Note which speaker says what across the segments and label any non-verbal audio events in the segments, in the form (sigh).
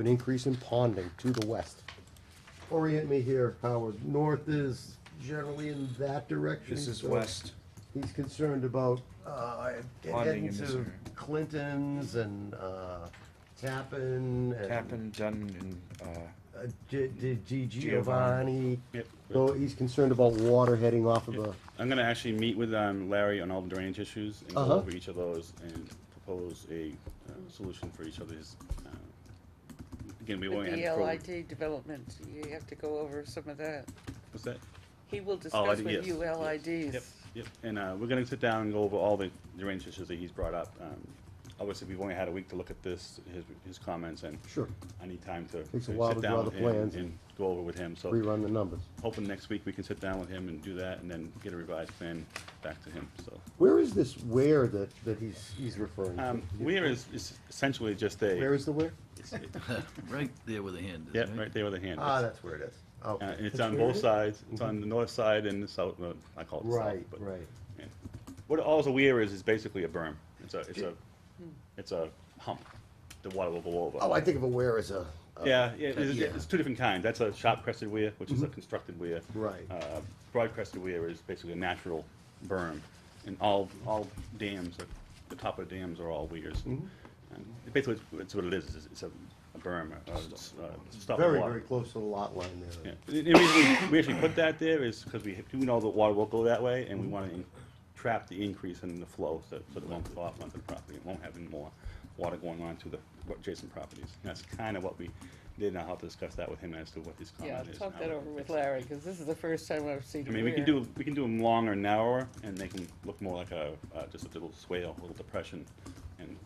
Speaker 1: an increase in ponding to the west. Orient me here, Howard. North is generally in that direction.
Speaker 2: This is
Speaker 1: so
Speaker 2: west.
Speaker 1: He's concerned about, uh,
Speaker 2: Ponding
Speaker 1: heading
Speaker 2: in this
Speaker 1: to
Speaker 2: area.
Speaker 1: Clinton's and, uh, Tappan and.
Speaker 2: Tappan, Dunn, and, uh,
Speaker 1: Uh, G- G- G- Giovanni.
Speaker 2: Giovanni.
Speaker 3: Yep.
Speaker 1: So he's concerned about water heading off of the,
Speaker 3: I'm gonna actually meet with um, Larry on all the drainage issues and
Speaker 1: Uh-huh.
Speaker 3: go over each of those and propose a uh, solution for each of these. uh, Again, we
Speaker 4: With
Speaker 3: won't.
Speaker 4: the
Speaker 3: end pro-
Speaker 4: LID development, you have to go over some of that.
Speaker 3: What's that?
Speaker 4: He will
Speaker 3: Oh, I
Speaker 4: discuss
Speaker 3: did-
Speaker 4: with
Speaker 3: yes,
Speaker 4: you
Speaker 3: yes,
Speaker 4: LIDs.
Speaker 3: Yep, yep, and uh, we're gonna sit down and go over all the drainage issues that he's brought up. Um, Obviously, we've only had a week to look at this, his, his comments, and
Speaker 1: sure,
Speaker 3: I need time to to
Speaker 1: Takes a
Speaker 3: sit
Speaker 1: while to draw
Speaker 3: down
Speaker 1: the
Speaker 3: and-
Speaker 1: plans
Speaker 3: and
Speaker 1: and
Speaker 3: go over with him, so
Speaker 1: rerun the numbers.
Speaker 3: hoping next week we can sit down with him and do that, and then get a revised plan back to him, so.
Speaker 1: Where is this where that, that he's, he's referring to?
Speaker 3: Um, Weir is is essentially just a.
Speaker 1: Where is the where?
Speaker 5: (laughs) Right there with the hand is,
Speaker 3: Yeah,
Speaker 5: right?
Speaker 3: right there with a hand.
Speaker 1: Ah,
Speaker 3: It's-
Speaker 1: that's where it is.
Speaker 3: Uh,
Speaker 1: Okay.
Speaker 3: it's on both sides, it's on the north side and the south, well, I call it the south.
Speaker 1: Mm-hmm. Right,
Speaker 3: but-
Speaker 1: right.
Speaker 3: yeah. What all the weir is, is basically a berm. It's a, it's a, it's a hump. The water will go over.
Speaker 1: Oh, I think of a where as a. a-
Speaker 3: Yeah, yeah, it's,
Speaker 1: Uh, yeah. Mm-hmm.
Speaker 3: it's two different kinds. That's a sharp crested weir, which is a constructed weir.
Speaker 1: Right.
Speaker 3: Uh, broad crested weir is basically a natural berm, and all all dams, are, the top of dams are all weirs.
Speaker 1: Mm-hmm.
Speaker 3: And basically, it's, it's what it is. It's, it's a, a berm, a, a s- a stop of
Speaker 1: Very,
Speaker 3: water.
Speaker 1: very close to the lot line
Speaker 3: Yeah.
Speaker 1: there.
Speaker 3: The the reason we- we actually put that there is because we, we know that water will go that way, and we want to trap the increase in the flow, so, so it won't go off onto the property, it won't have any more water going on to the adjacent properties. And That's kind of what we did, and I'll have to discuss that with him as to what his
Speaker 4: Yeah,
Speaker 3: comment is.
Speaker 4: talk
Speaker 3: now.
Speaker 4: that over with Larry, because this is the first time I've seen
Speaker 3: I
Speaker 4: him
Speaker 3: mean, we can do, we can do them long or narrower, and they can look more like a, uh, just a little swale, a little depression, and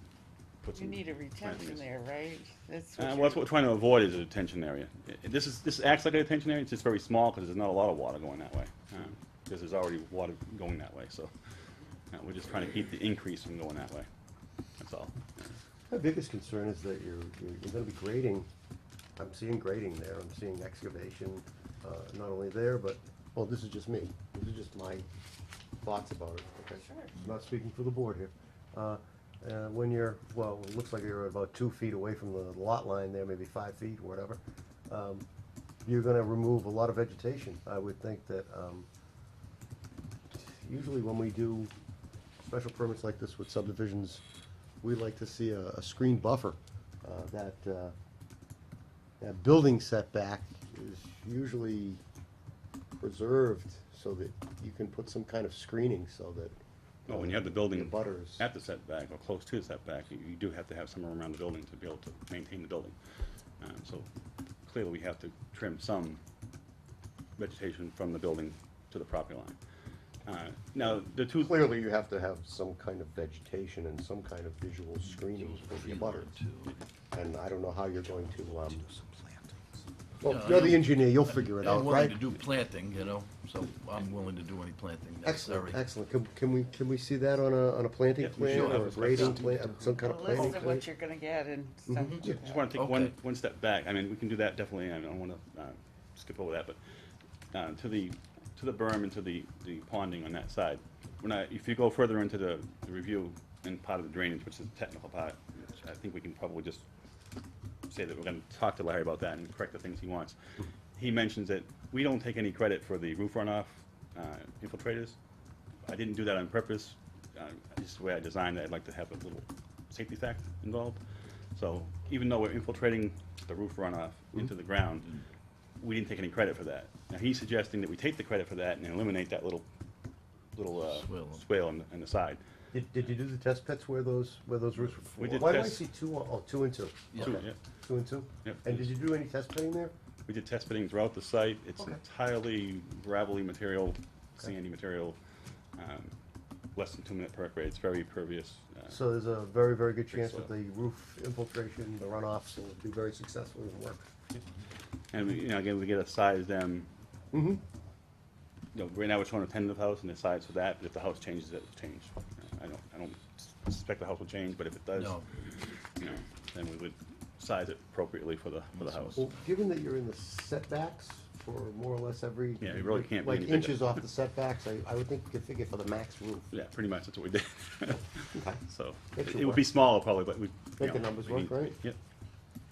Speaker 3: put
Speaker 4: You
Speaker 3: some.
Speaker 4: need a retention
Speaker 3: plantings.
Speaker 4: there, right? That's
Speaker 3: Uh,
Speaker 4: what
Speaker 3: well, that's what we're trying to avoid is a detention area. I- I- This is, this acts like a detention area, it's just very small because there's not a lot of water going that way. Um, Because there's already water going that way, so uh, we're just trying to keep the increase from going that way. That's all.
Speaker 1: My biggest concern is that you're, you're, you're gonna be grading, I'm seeing grading there, I'm seeing excavation, uh, not only there, but, well, this is just me, this is just my thoughts about it, okay?
Speaker 4: Sure.
Speaker 1: I'm Not speaking for the board here. Uh, uh, when you're, well, it looks like you're about two feet away from the lot line there, maybe five feet, or whatever. Um, you're gonna remove a lot of vegetation, I would think that, um, usually when we do special permits like this with subdivisions, we like to see a, a screen buffer. Uh, that, uh, that building setback is usually preserved so that you can put some kind of screening so that.
Speaker 3: Oh, when you have the building
Speaker 1: butters.
Speaker 3: at the setback or close to the setback, you- you do have to have somewhere around the building to be able to maintain the building. Um, So clearly, we have to trim some vegetation from the building to the property line. Uh, Now, the two.
Speaker 1: Clearly, you have to have some kind of vegetation and some kind of visual screening for the butters. And I don't know how you're going to, um, well,
Speaker 5: Yeah,
Speaker 1: you're
Speaker 5: I
Speaker 1: the
Speaker 5: don't-
Speaker 1: engineer, you'll figure it out,
Speaker 5: I'm willing
Speaker 1: right?
Speaker 5: to do planting, you know, so I'm willing to do any planting necessary.
Speaker 1: Excellent, excellent. Can, can we, can we see that on a, on a planting
Speaker 3: Yeah, we
Speaker 1: plan
Speaker 3: should have
Speaker 1: or a
Speaker 3: a
Speaker 1: grading
Speaker 3: special-
Speaker 1: plan, uh, some kind of
Speaker 4: you're, a
Speaker 1: planting
Speaker 4: list of
Speaker 1: plan?
Speaker 4: what you're gonna get and stuff. like
Speaker 1: Yeah.
Speaker 4: that.
Speaker 3: Just want to take one,
Speaker 5: Okay.
Speaker 3: one step back. I mean, we can do that definitely. I don't want to skip over that, but uh, to the, to the berm and to the, the ponding on that side. When I, if you go further into the the review and part of the drainage, which is the technical part, which I think we can probably just say that we're going to talk to Larry about that and correct the things he wants. He mentions that we don't take any credit for the roof runoff uh, infiltrators. I didn't do that on purpose. Uh, Just the way I designed it, I'd like to have a little safety fact involved. So even though we're infiltrating the roof runoff into the ground, we didn't take any credit for that. Now, he's suggesting that we take the credit for that and eliminate that little, little uh,
Speaker 5: Swale.
Speaker 3: swale on the- on the side.
Speaker 1: Did, did you do the test pits where those, where those roofs were?
Speaker 3: We did
Speaker 1: Why do I
Speaker 3: test-
Speaker 1: see two, on- oh, two and two?
Speaker 5: Yeah.
Speaker 3: Two,
Speaker 1: Okay.
Speaker 3: yeah.
Speaker 1: Two and two?
Speaker 3: Yep.
Speaker 1: And did you do any test pitting there?
Speaker 3: We did test fitting throughout the site. It's
Speaker 1: Okay.
Speaker 3: entirely gravelly material,
Speaker 1: Okay.
Speaker 3: sandy material, um, less than two minute perk rate. It's very pervious. uh,
Speaker 1: So there's a very, very good
Speaker 3: Think
Speaker 1: chance that
Speaker 3: so.
Speaker 1: the roof infiltration, the runoffs will be very successful and work.
Speaker 3: And we, you know, again, we get a size them.
Speaker 1: Mm-hmm.
Speaker 3: You know, right now we're showing a tentative house and the size for that, but if the house changes, it will change. Uh, I don't, I don't suspect the house will change, but if it does,
Speaker 5: No.
Speaker 3: you know, then we would size it appropriately for the, for the house.
Speaker 1: Well, given that you're in the setbacks for more or less every.
Speaker 3: Yeah, you really can't be
Speaker 1: Like
Speaker 3: any bigger.
Speaker 1: inches off the setbacks, I, I would think you could figure for the max roof.
Speaker 3: Yeah, pretty much that's what we did. (laughs) So,
Speaker 1: It should
Speaker 3: it would
Speaker 1: work.
Speaker 3: be smaller probably, but we. you
Speaker 1: Make the
Speaker 3: know,
Speaker 1: numbers
Speaker 3: we
Speaker 1: work,
Speaker 3: need-
Speaker 1: right?
Speaker 3: Yep.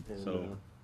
Speaker 1: And,
Speaker 3: So,
Speaker 1: uh,